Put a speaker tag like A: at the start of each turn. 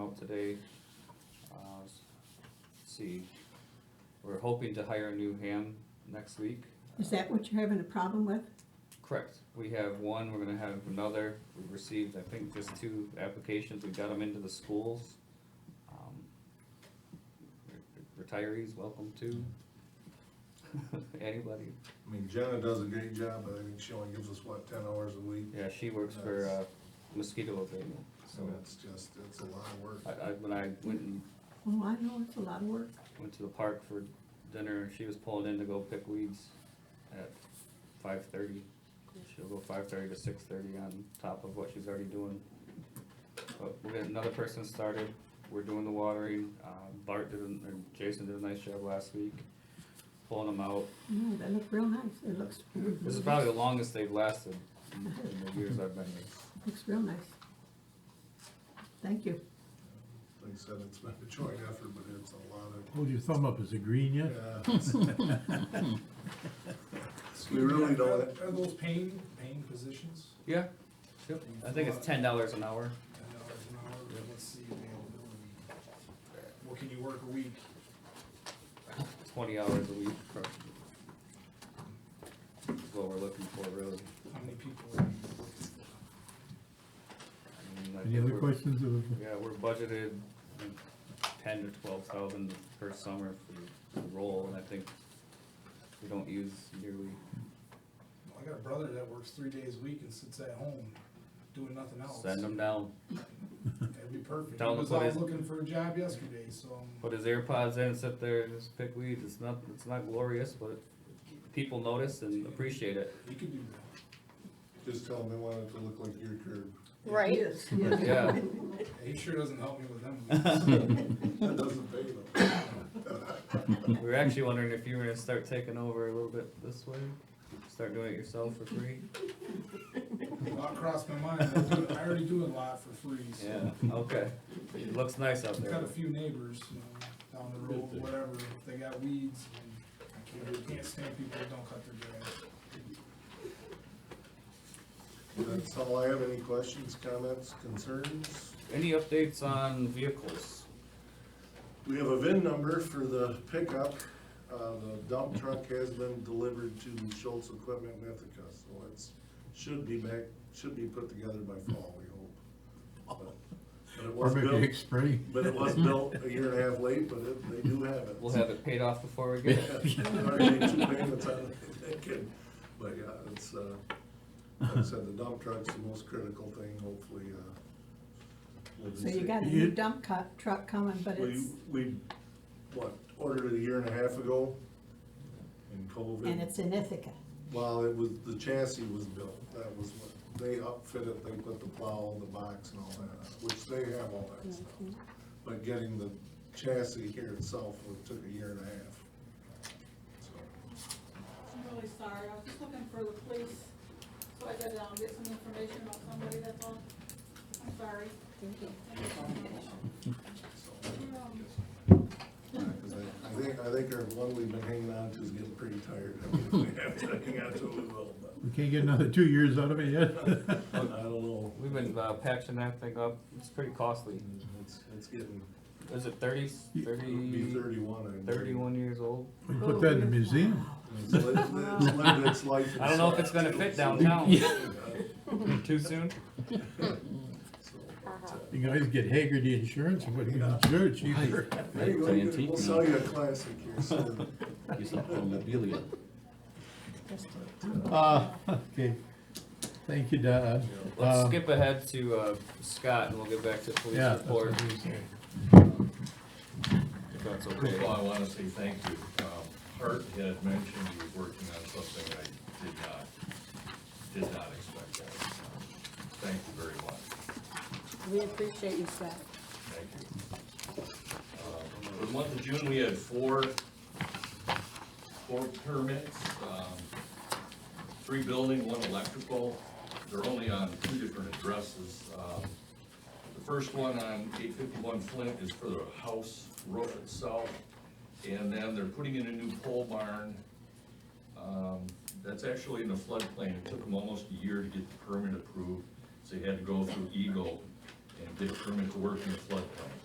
A: out today. Uh, let's See, we're hoping to hire a new ham next week. Uh,
B: Is that what you're having a problem with?
A: Correct. We have one, we're gonna have another. We've received, I think, just two applications. We've got them into the schools. Um, Retirees, welcome to. Anybody.
C: I mean, Jenna does a great job, but I think she only gives us, what, ten hours a week?
A: Yeah, she works for uh, mosquito abatement, so.
C: So that's just, that's a lot of work.
A: I, I, when I went and
B: Oh, I know, it's a lot of work.
A: went to the park for dinner, she was pulling in to go pick weeds at five thirty. She'll go five thirty to six thirty on top of what she's already doing. But we got another person started, we're doing the watering, uh, Bart did, a- or Jason did a nice job last week, pulling them out.
B: No, they look real nice. It looks,
A: This is probably the longest they've lasted in in the years I've been here.
B: looks real nice. Thank you.
C: Like I said, it's been a joint effort, but it's a lot of,
D: Hold your thumb up, is it green yet?
C: yeah. it's- We really don't,
E: Are those paying, paying positions?
A: Yeah, yep, I think it's ten dollars an hour.
E: Ten dollars an hour, but let's see availability. What can you work a week?
A: twenty hours a week. Is what we're looking for, really.
E: How many people are you?
A: I mean, I
D: Any
A: think
D: other
A: we're-
D: questions of,
A: Yeah, we're budgeted um, ten to twelve thousand per summer for the role, and I think we don't use nearly,
E: I got a brother that works three days a week and sits at home doing nothing else.
A: send them down.
E: That'd be perfect. He
A: Tell him
E: was
A: to put
E: out
A: his-
E: looking for a job yesterday, so. um,
A: Put his AirPods in, sit there, and just pick weeds, it's not, it's not glorious, but people notice and appreciate it.
E: He could do that.
C: just tell them they want it to look like your curb.
F: Right,
B: Yes, yes.
A: Yeah,
E: He sure doesn't help me with them.
C: That doesn't pay them.
A: we were actually wondering if you were gonna start taking over a little bit this way, start doing it yourself for free.
E: Thought crossed my mind. I do- I already do a lot for free, so.
A: Yeah, okay, it looks nice out there.
E: Got a few neighbors, you know, down the road, whatever, if they got weeds, and I can't, can't stand people that don't cut their grass.
C: That's all I have. Any questions, comments, concerns?
A: Any updates on vehicles?
C: We have a VIN number for the pickup. Uh, the dump truck has been delivered to Schultz Equipment in Ithaca, so it's, should be back, should be put together by fall, we hope. But it
D: or
C: was
D: maybe
C: built,
D: X-ray?
C: but it was built a year and a half late, but it, they do have it.
A: We'll have it paid off before we get it.
C: Already made two payments on it, they can- But yeah, it's, uh, like I said, the dump truck's the most critical thing, hopefully, uh. we'll
B: So
C: just
B: you
C: see.
B: got a
D: You-
B: new dump co- truck coming, but
C: We,
B: it's,
C: we, what, ordered it a year and a half ago in COVID.
B: and it's in Ithaca.
C: Well, it was, the chassis was built, that was what, they upfitted, they put the plow, the box and all that, which they have all that stuff.
B: Mm-hmm.
C: But getting the chassis here itself would- took a year and a half. So,
G: I'm really sorry, I was just looking for the police, so I could, um, get some information about somebody, that's all. I'm sorry. Thank you so much. Um,
C: so,
G: You're welcome.
C: yeah, 'cause I I think, I think our one we've been hanging on to is getting pretty tired. I mean, If we have to hang on to it, we will,
D: We can't get another two years out of it yet?
C: but I don't know.
A: We've been uh, patching that thing up. It's pretty costly.
C: It's, it's getting,
A: Is it 30,
C: it'll be
A: 30,
C: thirty-one. I think.
A: 31 years old?
D: We put that in the museum.
C: It's li- it's lived its life.
A: I don't know if it's gonna fit downtown. Too soon?
D: You guys get Hagerty Insurance, and what do you insure cheaper?
C: There you go,
H: It's
C: you
H: antique
C: can- we'll
H: now.
C: sell you a classic here soon.
H: He's not memorabilia.
D: Uh, okay, thank you, Don.
A: Let's
D: Uh,
A: skip ahead to uh, Scott and we'll get back to police
D: Yeah. that's
A: report,
D: what we say.
A: if that's
I: First of all,
A: okay.
I: I wanna say thank you. Um, Hart had mentioned he was working on something I did not, did not expect that. Um, Thank you very much,
F: we appreciate you, Scott.
I: thank you. Um, For Uh, the month of June, we had four, four permits, um, three building, one electrical. They're only on two different addresses. Um, The first one on eight fifty-one Flint is for the house roof itself. And then they're putting in a new pole barn. Um, That's actually in the floodplain. It took them almost a year to get the permit approved. So they had to go through Eagle and get a permit to work in the floodplain.